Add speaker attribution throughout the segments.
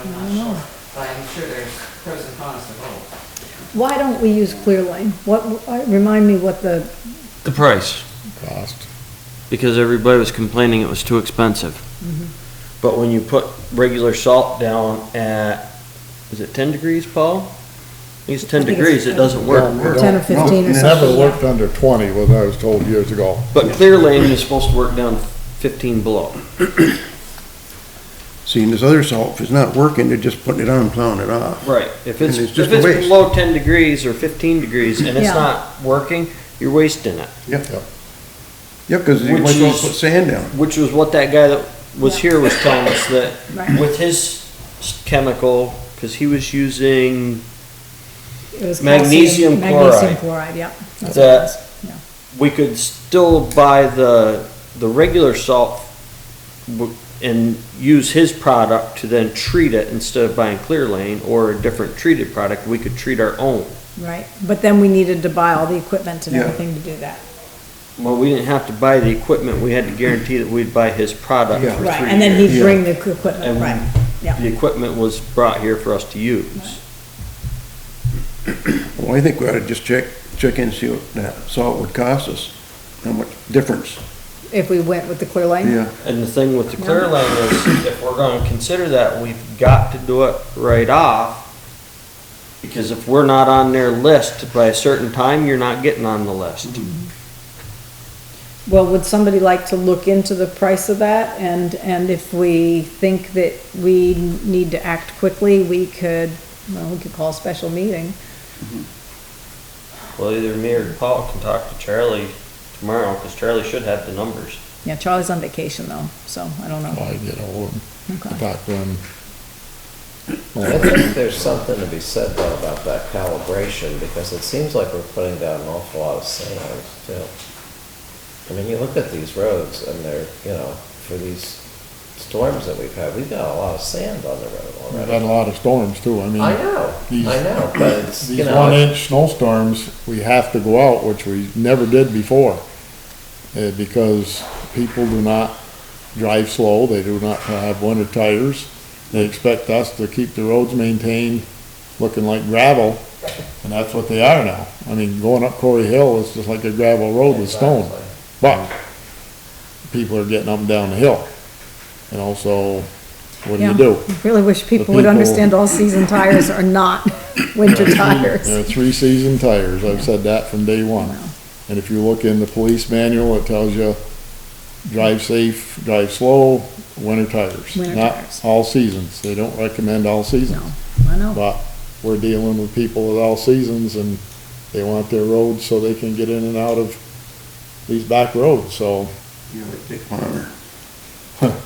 Speaker 1: I'm not sure, but I'm sure there's pros and cons to both.
Speaker 2: Why don't we use Clear Lane? What, uh, remind me what the,
Speaker 3: The price,
Speaker 4: cost.
Speaker 3: because everybody was complaining it was too expensive. But when you put regular salt down at, is it ten degrees, Paul? I think it's ten
Speaker 2: think it's
Speaker 3: degrees, it doesn't work.
Speaker 2: 10 or 15 or
Speaker 4: It
Speaker 2: something.
Speaker 4: Never worked under twenty, was I was told years ago.
Speaker 3: But clear lane is supposed to work down fifteen below.
Speaker 5: Seeing this other salt, if it's not working, they're just putting it on and plowing it off.
Speaker 3: Right. If it's,
Speaker 5: And it's
Speaker 3: if
Speaker 5: just a
Speaker 3: it's
Speaker 5: waste.
Speaker 3: below ten degrees or fifteen degrees and it's
Speaker 2: Yeah.
Speaker 3: not working, you're wasting it.
Speaker 5: Yep. Yep, because you
Speaker 3: Which
Speaker 5: might as well
Speaker 3: is-
Speaker 5: put sand down.
Speaker 3: Which was what that guy that was
Speaker 2: Yeah.
Speaker 3: here was telling us that
Speaker 2: Right.
Speaker 3: with his s- chemical, cause he was using,
Speaker 2: it was calcium-
Speaker 3: Magnesium
Speaker 2: Magnesium
Speaker 3: chloride.
Speaker 2: chloride, yeah. That's what it
Speaker 3: That-
Speaker 2: was. Yeah.
Speaker 3: we could still buy the, the regular salt w- and use his product to then treat it instead of buying Clear Lane or a different treated product, we could treat our own.
Speaker 2: Right, but then we needed to buy all the equipment and
Speaker 5: Yeah.
Speaker 2: everything to do that.
Speaker 3: Well, we didn't have to buy the equipment, we had to guarantee that we'd buy his product
Speaker 5: Yeah.
Speaker 3: for
Speaker 2: Right,
Speaker 3: three
Speaker 2: and then he'd
Speaker 5: years.
Speaker 2: bring the equi- equipment,
Speaker 3: And
Speaker 2: right,
Speaker 3: The
Speaker 2: yeah.
Speaker 3: equipment was brought here for us to use.
Speaker 5: Well, I think we ought to just check, check in, see what that salt would cost us, how much difference.
Speaker 2: If we went with the Clear Lane?
Speaker 5: Yeah,
Speaker 3: And the thing with the clear lane is, if we're gonna consider that, we've got to do it right off. Because if we're not on their list by a certain time, you're not getting on the list.
Speaker 2: Well, would somebody like to look into the price of that? And, and if we think that we need to act quickly, we could, well, we could call a special meeting.
Speaker 3: Well, either me or Paul can talk to Charlie tomorrow, cause Charlie should have the numbers.
Speaker 2: Yeah, Charlie's on vacation though, so I don't know.
Speaker 4: I get old and
Speaker 2: Okay.
Speaker 4: talk to him.
Speaker 6: I think there's something to be said though about that calibration, because it seems like we're putting down an awful lot of sand too. I mean, you look at these roads and they're, you know, for these storms that we've had, we've got a lot of sand on the road
Speaker 4: We've
Speaker 6: already.
Speaker 4: had a lot of storms too, I mean.
Speaker 6: I know,
Speaker 4: these-
Speaker 6: I know, but it's, you
Speaker 4: These
Speaker 6: know,
Speaker 4: one
Speaker 6: it-
Speaker 4: inch snowstorms, we have to go out, which we never did before. Uh, because people do not drive slow, they do not have winter tires. They expect us to keep the roads maintained, looking like gravel, and that's what they are now. I mean, going up Corey Hill is just like a gravel road with stone.
Speaker 6: Exactly.
Speaker 4: But people are getting up and down the hill. And also, what do
Speaker 2: Yeah.
Speaker 4: you do?
Speaker 2: I Really wish people would
Speaker 4: people-
Speaker 2: understand all season tires are not winter
Speaker 4: There are
Speaker 2: tires.
Speaker 4: three season tires. I've said that from day one. And if you look in the police manual, it tells you drive safe, drive slow, winter tires.
Speaker 2: Winter tires.
Speaker 4: Not all seasons. They don't recommend all
Speaker 2: No,
Speaker 4: seasons.
Speaker 2: I know,
Speaker 4: But we're dealing with people with all seasons and they want their roads so they can get in and out of these back roads. So
Speaker 5: you know, they take one on there.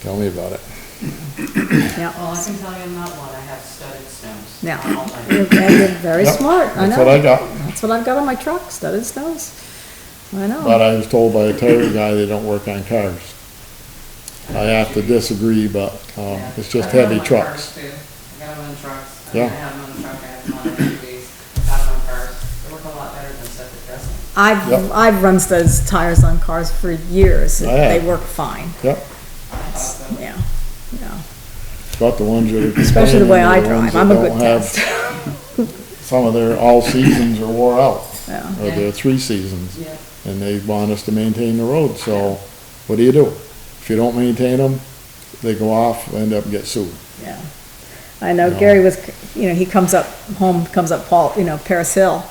Speaker 4: tell me about it.
Speaker 2: yeah,
Speaker 1: Well, I can tell you I'm not one, I have studded stones.
Speaker 2: Yeah.
Speaker 1: on all my-
Speaker 2: you're, and you're very
Speaker 4: Yep,
Speaker 2: smart, I
Speaker 4: That's what I
Speaker 2: know.
Speaker 4: got.
Speaker 2: That's what I've got on my truck, studded snows. I
Speaker 4: But
Speaker 2: know,
Speaker 4: I was told by a tire guy they don't work on cars. I have to disagree, but, um,
Speaker 1: Yeah.
Speaker 4: it's just
Speaker 1: I got 'em
Speaker 4: heavy
Speaker 1: on cars,
Speaker 4: trucks.
Speaker 1: too. I got them on trucks, I mean, I
Speaker 4: Yeah.
Speaker 1: have them on the truck, I have them on SUVs, I have them on cars, they work a lot better than septic dressing.
Speaker 2: I've,
Speaker 4: Yep.
Speaker 2: I've run studded tires on cars for years,
Speaker 4: I have.
Speaker 2: they work fine,
Speaker 4: Yep,
Speaker 1: Awesome.
Speaker 2: yeah, yeah.
Speaker 4: but the ones that are.
Speaker 2: Especially the way I
Speaker 4: complaining are the
Speaker 2: drive,
Speaker 4: ones that
Speaker 2: I'm a good
Speaker 4: don't have-
Speaker 2: test,
Speaker 4: Some of their all seasons are wore out,
Speaker 2: yeah.
Speaker 4: or their three seasons,
Speaker 1: Yeah,
Speaker 4: and they want us to maintain the road, so what do you do? If you don't maintain them, they go off, end up get sued.
Speaker 2: Yeah. I know
Speaker 4: No.
Speaker 2: Gary was, you know, he comes up home, comes up Paul, you know, Paris Hill.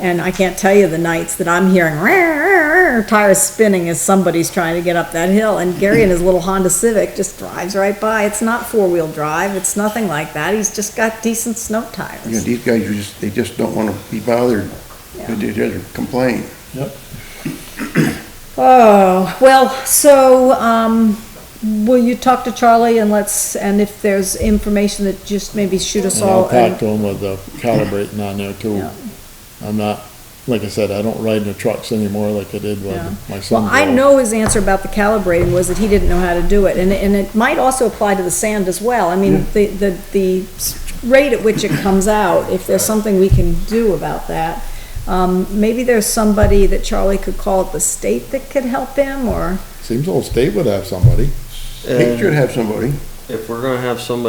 Speaker 2: And I can't tell you the nights that I'm hearing "Rar, rar, rar," tires spinning as somebody's trying to get up that hill. And Gary in his little Honda Civic just drives right by. It's not four-wheel drive. It's nothing like that. He's just got decent snow
Speaker 5: You know,
Speaker 2: tires.
Speaker 5: these guys, you just, they just don't want to be bothered.
Speaker 2: Yeah.
Speaker 5: They just complain.
Speaker 2: Oh, well, so, um, will you talk to Charlie and let's, and if there's information that just maybe shoot us
Speaker 4: And I'll
Speaker 2: all.
Speaker 4: talk
Speaker 2: and-
Speaker 4: to them with the calibrating on there too.
Speaker 2: Yeah.
Speaker 4: I'm not, like I said, I don't ride in the trucks anymore like I did
Speaker 2: Yeah.
Speaker 4: with my son.
Speaker 2: Well, I know his answer about the calibrating was that he didn't know how to do it, and, and it might also apply to the sand as well. I mean, the, the, the s- rate at which it comes out, if there's something we can do about that. Um, maybe there's somebody that Charlie could call at the state that could help him, or,
Speaker 4: Seems the whole state would have somebody.
Speaker 5: They should have somebody.
Speaker 3: if we're gonna have somebody